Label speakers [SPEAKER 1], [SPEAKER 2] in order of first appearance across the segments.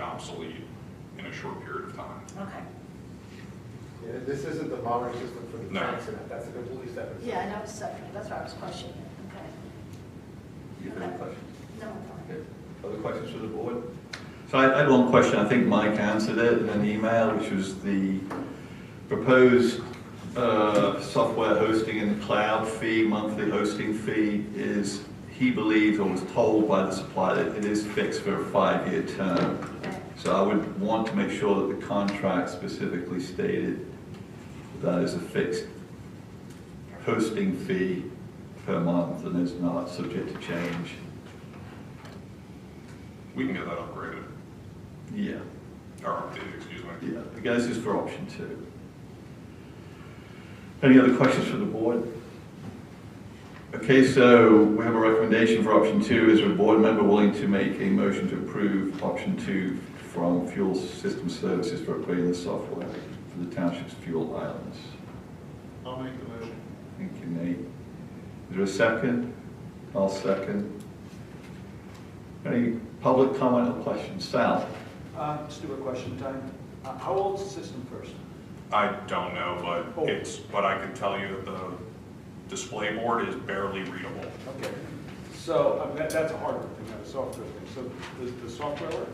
[SPEAKER 1] obsolete in a short period of time.
[SPEAKER 2] Okay.
[SPEAKER 3] Yeah, This isn't the monitoring system for the
[SPEAKER 1] No.
[SPEAKER 3] tanks and that, that's a completely separate.
[SPEAKER 2] Yeah, I know it's separate, that's why I was questioning it, okay.
[SPEAKER 4] You have any questions?
[SPEAKER 2] No, I'm fine.
[SPEAKER 4] Okay. Other questions for the board? So I I had one question, I think Mike answered it in an email, which was the proposed uh, software hosting in the cloud fee, monthly hosting fee is, he believes or was told by the supplier that it is fixed for a five-year term.
[SPEAKER 2] Okay.
[SPEAKER 4] So I would want to make sure that the contract specifically stated that is a fixed hosting fee per month and is not subject to change.
[SPEAKER 1] We can get that upgraded,
[SPEAKER 4] Yeah,
[SPEAKER 1] or updated, excuse me.
[SPEAKER 4] yeah, I guess it's for option two. Any other questions for the board? Okay, so we have a recommendation for option two. Is there a board member willing to make a motion to approve option two from Fuel System Services for upgrading the software for the township's fuel islands?
[SPEAKER 3] I'll make the motion.
[SPEAKER 4] Thank you, Nate. Is there a second? I'll second. Any public comment or questions? Sal?
[SPEAKER 5] Uh, Let's do a question time. Uh, How old's the system first?
[SPEAKER 1] I don't know,
[SPEAKER 5] Oh.
[SPEAKER 1] but it's, but I can tell you that the display board is barely readable.
[SPEAKER 5] Okay, so I mean, that- that's a hardware thing, not a software thing. So does the software work?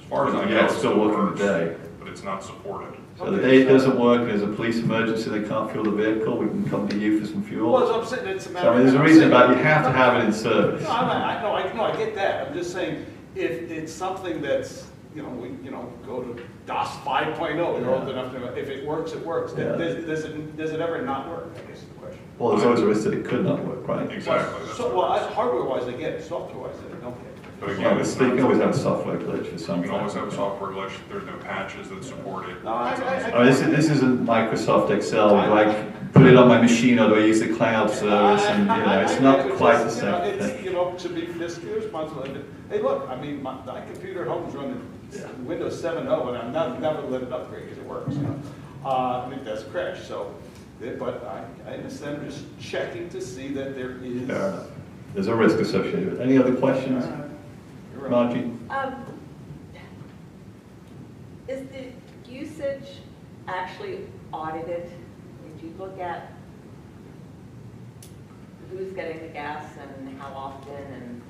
[SPEAKER 1] As far as I know.
[SPEAKER 4] Yeah, it's
[SPEAKER 1] it
[SPEAKER 4] still working
[SPEAKER 1] works,
[SPEAKER 4] today.
[SPEAKER 1] But it's not supported.
[SPEAKER 4] So the day doesn't work, there's a police emergency, they can't fuel the vehicle, we can come to you for some
[SPEAKER 5] Well,
[SPEAKER 4] fuel.
[SPEAKER 5] it's upset, it's a matter
[SPEAKER 4] So I
[SPEAKER 5] of...
[SPEAKER 4] mean, there's a reason about, you have to have it in service.
[SPEAKER 5] No, I'm not- I, no, I, no, I get that. I'm just saying, if it's something that's, you know, we, you know, go to DOS 5.0, you're old
[SPEAKER 4] Yeah.
[SPEAKER 5] enough to, know. if it works, it works.
[SPEAKER 4] Yeah.
[SPEAKER 5] Does, does it, does it ever not work, I guess is the question.
[SPEAKER 4] Well, there's always a risk that it could not work, right?
[SPEAKER 1] Exactly. that's
[SPEAKER 5] So,
[SPEAKER 1] what
[SPEAKER 5] well,
[SPEAKER 1] it is.
[SPEAKER 5] I- hardware-wise, I get it, software-wise, I don't get it.
[SPEAKER 1] But
[SPEAKER 4] Yeah,
[SPEAKER 1] again,
[SPEAKER 4] but
[SPEAKER 1] it's
[SPEAKER 4] They
[SPEAKER 1] not,
[SPEAKER 4] can always
[SPEAKER 1] you
[SPEAKER 4] have a software glitch for some.
[SPEAKER 1] can always
[SPEAKER 4] type
[SPEAKER 1] have
[SPEAKER 4] of
[SPEAKER 1] a
[SPEAKER 4] thing.
[SPEAKER 1] software glitch, there's no patches that support it.
[SPEAKER 5] No, I- I-
[SPEAKER 4] Oh, this, is- this isn't Microsoft Excel, do I put it on my machine or do I use the cloud service? And, you know, it's not quite the
[SPEAKER 5] You know,
[SPEAKER 4] same
[SPEAKER 5] it's,
[SPEAKER 4] thing.
[SPEAKER 5] You know, to be fiscally responsible, and, hey, look, I mean, my, my computer at home is
[SPEAKER 4] Yeah.
[SPEAKER 5] running Windows seven oh, and I'm not, never let it upgrade because it works, you know? Uh, I think that's crashed, so, eh, but I, I understand, I'm just checking to see that there is.
[SPEAKER 4] Fair enough. There's a risk associated with it. Any other questions?
[SPEAKER 5] All right. You're right.
[SPEAKER 4] Margie?
[SPEAKER 6] Um, Is the usage actually audited? If you look at who's getting the gas and how often and,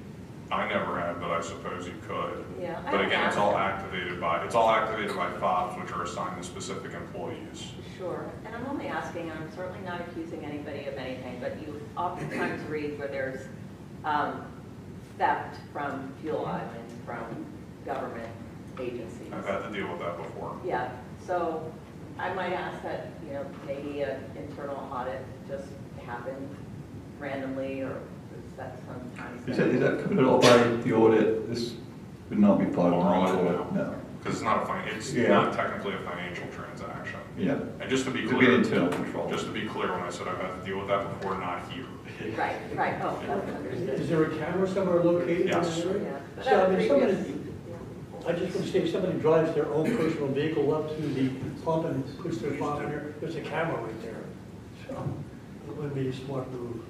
[SPEAKER 1] I never had, but I suppose you could.
[SPEAKER 6] yeah.
[SPEAKER 1] But
[SPEAKER 6] I don't
[SPEAKER 1] again, it's all
[SPEAKER 6] ask.
[SPEAKER 1] activated by, it's all activated by fobs, which are assigned to specific employees.
[SPEAKER 6] Sure, and I'm only asking, and I'm certainly not accusing anybody of anything, but you oftentimes read where there's um, theft from fuel islands, from government agencies.
[SPEAKER 1] I've had to deal with that before.
[SPEAKER 6] Yeah, so I might ask that, you know, maybe an internal audit just happened randomly or is that sometimes.
[SPEAKER 4] Is that, is that covered at all by the audit? This would not be part of
[SPEAKER 1] Overall,
[SPEAKER 4] our audit,
[SPEAKER 1] no.
[SPEAKER 4] no.
[SPEAKER 1] Because it's not a fin, it's
[SPEAKER 4] Yeah.
[SPEAKER 1] not technically a financial transaction.
[SPEAKER 4] Yeah.
[SPEAKER 1] And just to be
[SPEAKER 4] It could be an
[SPEAKER 1] clear,
[SPEAKER 4] internal control.
[SPEAKER 1] just to be clear, when I said I've had to deal with that before, not here.
[SPEAKER 6] Right, right, oh, that's
[SPEAKER 7] Is
[SPEAKER 6] understood.
[SPEAKER 7] there a camera somewhere located? in the
[SPEAKER 1] Yes.
[SPEAKER 7] area?
[SPEAKER 6] Yeah, but
[SPEAKER 7] So, I
[SPEAKER 6] that's
[SPEAKER 7] mean, somebody-
[SPEAKER 6] previous-
[SPEAKER 7] I just want to say, if somebody drives their own personal vehicle up to the pump and puts their pump in there, there's a camera right there. So it would be a smart move.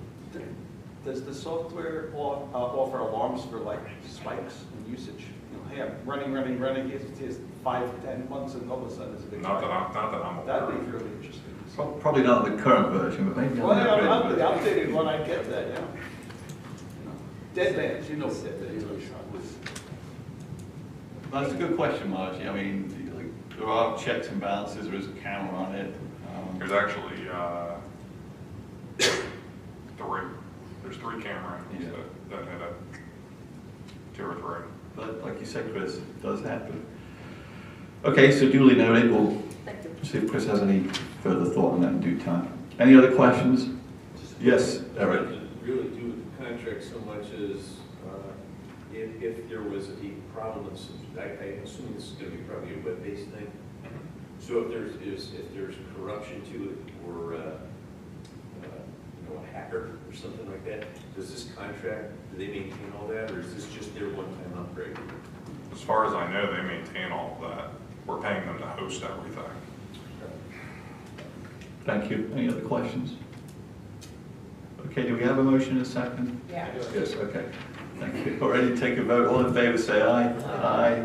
[SPEAKER 5] Does the software off- uh, offer alarms for like spikes in usage? You know, hey, I'm running, running, running, it's, it's five, ten months and all of a sudden it's a big.
[SPEAKER 1] Not that
[SPEAKER 5] spike.
[SPEAKER 1] I'm, not that I'm aware
[SPEAKER 5] That'd
[SPEAKER 1] of.
[SPEAKER 5] be really interesting. to see.
[SPEAKER 4] Pro- Probably not the current version, but maybe
[SPEAKER 5] Well,
[SPEAKER 4] on the
[SPEAKER 5] yeah, I'm, I'm
[SPEAKER 4] upgraded
[SPEAKER 5] the
[SPEAKER 4] version.
[SPEAKER 5] updated one, I get that, yeah. Deadlands, you know Deadlands.
[SPEAKER 4] That's a good question, Margie. I mean, like, there are checks and balances, there is a camera on it. Um,
[SPEAKER 1] There's actually, uh, three, there's three camera angles
[SPEAKER 4] Yeah.
[SPEAKER 1] that, that hit it. Two or three.
[SPEAKER 4] But like you said, Chris, it does happen. Okay, so duly noted, we'll
[SPEAKER 6] Thank you.
[SPEAKER 4] see if Chris has any further thought on that in due time. Any other questions? Yes, Eric.
[SPEAKER 8] It doesn't Really do with the contract so much as uh, if, if there was a problem, so I, I assume this is gonna be probably a web-based thing. So if there's, is, if there's corruption to it or, uh, uh, you know, a hacker or something like that, does this contract, do they maintain all that or is this just their one-time upgrade?
[SPEAKER 1] As far as I know, they maintain all of that. We're paying them to host everything.
[SPEAKER 4] Thank you. Any other questions? Okay, do we have a motion in a second?
[SPEAKER 2] Yeah.
[SPEAKER 4] Yes, okay. Thank you. Already take a vote. All in favor, say aye. Aye.